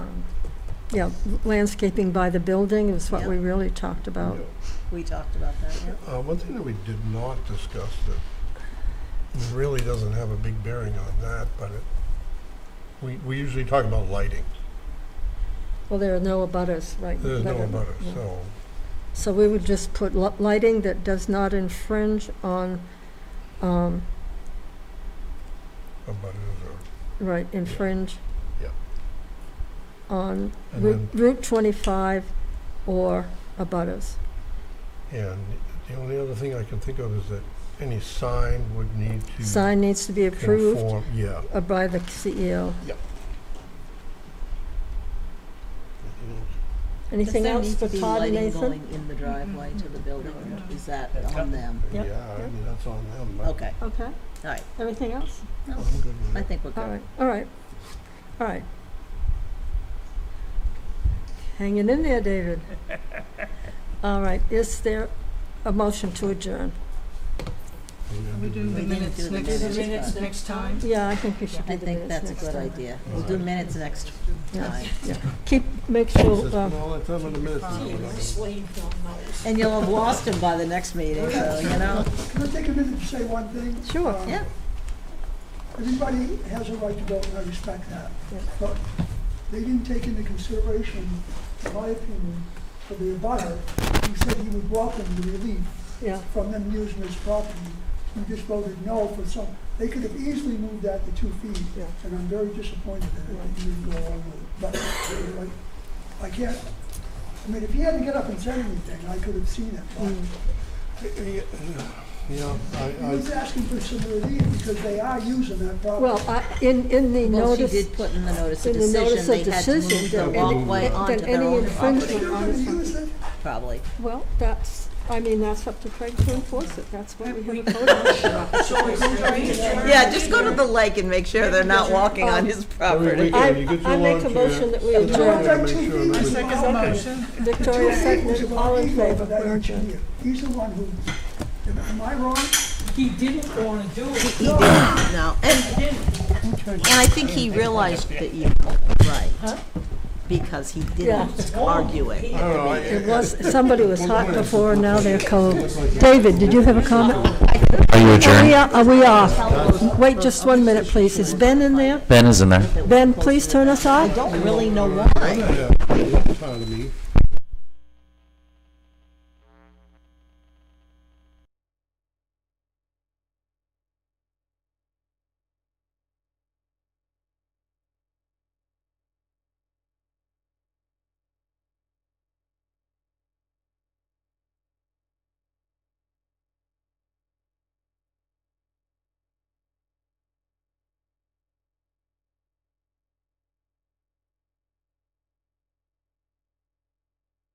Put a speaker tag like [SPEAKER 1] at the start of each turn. [SPEAKER 1] Yeah, landscaping by the building is what we really talked about.
[SPEAKER 2] We talked about that, yeah.
[SPEAKER 3] Uh, one thing that we did not discuss that really doesn't have a big bearing on that, but it, we, we usually talk about lighting.
[SPEAKER 1] Well, there are no abutters, right?
[SPEAKER 3] There's
[SPEAKER 1] that
[SPEAKER 3] no
[SPEAKER 1] are-
[SPEAKER 3] about
[SPEAKER 1] yeah.
[SPEAKER 3] it, so,
[SPEAKER 1] So we would just put li- lighting that does not infringe on, um,
[SPEAKER 3] about it is
[SPEAKER 1] right, infringe
[SPEAKER 3] Yeah.
[SPEAKER 1] on
[SPEAKER 3] a, and
[SPEAKER 1] Route
[SPEAKER 3] then,
[SPEAKER 1] Route 25 or abutters.
[SPEAKER 3] and the only other thing I can think of is that any sign would need to
[SPEAKER 1] Sign needs to be approved
[SPEAKER 3] conform- Yeah.
[SPEAKER 1] uh, by the CEO. Anything else for Todd and
[SPEAKER 2] Does there
[SPEAKER 1] Nathan?
[SPEAKER 2] need to be lighting going in the driveway to the building, or is that on them?
[SPEAKER 1] Yep,
[SPEAKER 3] Yeah, I
[SPEAKER 1] yep.
[SPEAKER 3] mean, that's on them, but
[SPEAKER 2] Okay,
[SPEAKER 1] Okay,
[SPEAKER 2] all right,
[SPEAKER 1] everything else?
[SPEAKER 2] No,
[SPEAKER 3] I'm good with
[SPEAKER 2] I
[SPEAKER 3] it.
[SPEAKER 2] think we're
[SPEAKER 1] All
[SPEAKER 2] good.
[SPEAKER 1] right, all right, all right. Hanging in there, David. All right, is there a motion to adjourn?
[SPEAKER 3] I'm good
[SPEAKER 4] We
[SPEAKER 3] with
[SPEAKER 4] do
[SPEAKER 3] it.
[SPEAKER 4] the
[SPEAKER 2] didn't do
[SPEAKER 4] minutes
[SPEAKER 2] the
[SPEAKER 4] next,
[SPEAKER 2] minutes.
[SPEAKER 4] minutes next time.
[SPEAKER 1] Yeah, I think we should
[SPEAKER 2] I
[SPEAKER 1] do the
[SPEAKER 2] think
[SPEAKER 1] minutes
[SPEAKER 2] that's a
[SPEAKER 1] next
[SPEAKER 2] good
[SPEAKER 1] time.
[SPEAKER 2] idea. We'll do minutes next
[SPEAKER 1] Yeah.
[SPEAKER 2] time.
[SPEAKER 1] Keep, make
[SPEAKER 3] It's
[SPEAKER 1] sure,
[SPEAKER 3] just
[SPEAKER 1] um,
[SPEAKER 3] all the time in the minutes. is what I'm-
[SPEAKER 2] And you'll have lost him by the next meeting, so, you know,
[SPEAKER 5] Can I take a minute to say one thing?
[SPEAKER 1] Sure.
[SPEAKER 5] Um,
[SPEAKER 2] yeah.
[SPEAKER 5] Everybody has a right to vote, and I respect that.
[SPEAKER 1] Yeah.
[SPEAKER 5] But they didn't take into consideration, in my opinion, for the abutter, who said he would welcome the relief
[SPEAKER 1] yeah,
[SPEAKER 5] from them using his property. You just voted no for some, they could have easily moved that to two feet.
[SPEAKER 1] Yeah.
[SPEAKER 5] And I'm very disappointed that it didn't go along with it. But like, I can't, I mean, if he hadn't get up and said anything, I could have seen it. but-
[SPEAKER 1] mm,
[SPEAKER 3] Yeah,
[SPEAKER 5] He
[SPEAKER 3] I, I,
[SPEAKER 5] was asking for some relief because they are using that property.
[SPEAKER 1] well, I, in, in the
[SPEAKER 2] Well, she
[SPEAKER 1] notice.
[SPEAKER 2] did put in the notice of
[SPEAKER 1] in the notice
[SPEAKER 2] decision,
[SPEAKER 1] of
[SPEAKER 2] they had to
[SPEAKER 1] decision,
[SPEAKER 2] move the
[SPEAKER 1] then
[SPEAKER 3] any-
[SPEAKER 2] walkway
[SPEAKER 1] then
[SPEAKER 2] onto their
[SPEAKER 1] any
[SPEAKER 2] own
[SPEAKER 5] But
[SPEAKER 1] infringement-
[SPEAKER 2] property,
[SPEAKER 5] they're gonna use it.
[SPEAKER 2] probably.
[SPEAKER 1] Well, that's, I mean, that's up to Craig to enforce it, that's why we have a code officer.
[SPEAKER 2] Yeah, just go to the lake and make sure they're not walking
[SPEAKER 1] on
[SPEAKER 2] on
[SPEAKER 1] his
[SPEAKER 2] his
[SPEAKER 3] Every
[SPEAKER 2] property.
[SPEAKER 3] week-
[SPEAKER 1] I,
[SPEAKER 3] you get
[SPEAKER 1] I
[SPEAKER 3] your
[SPEAKER 1] make a
[SPEAKER 3] lunch, yeah.
[SPEAKER 1] motion that we
[SPEAKER 5] It's all
[SPEAKER 1] adjourn.
[SPEAKER 5] right,
[SPEAKER 3] Make sure
[SPEAKER 5] two feet
[SPEAKER 3] I
[SPEAKER 4] I
[SPEAKER 5] is
[SPEAKER 4] second the
[SPEAKER 5] allowed.
[SPEAKER 4] motion.
[SPEAKER 1] Victoria
[SPEAKER 5] Two feet was
[SPEAKER 1] seconded,
[SPEAKER 5] about
[SPEAKER 1] all in
[SPEAKER 5] equal to
[SPEAKER 1] favor,
[SPEAKER 5] that
[SPEAKER 1] we're adjourned.
[SPEAKER 5] engineer. He's the one who, am I wrong?
[SPEAKER 4] He didn't want to do it.
[SPEAKER 2] He didn't, no, and, and I think he realized that you were right, because he didn't argue it.
[SPEAKER 3] I don't know, I-
[SPEAKER 1] It was, somebody was hot before, now they're cold. David, did you have a comment?
[SPEAKER 6] Are you
[SPEAKER 1] Are we,
[SPEAKER 6] adjourned?
[SPEAKER 1] are we off? Wait just one minute, please. Is Ben in there?
[SPEAKER 6] Ben is in there.
[SPEAKER 1] Ben, please turn us off.
[SPEAKER 2] Don't really know why.
[SPEAKER 3] Yeah, it's part of me.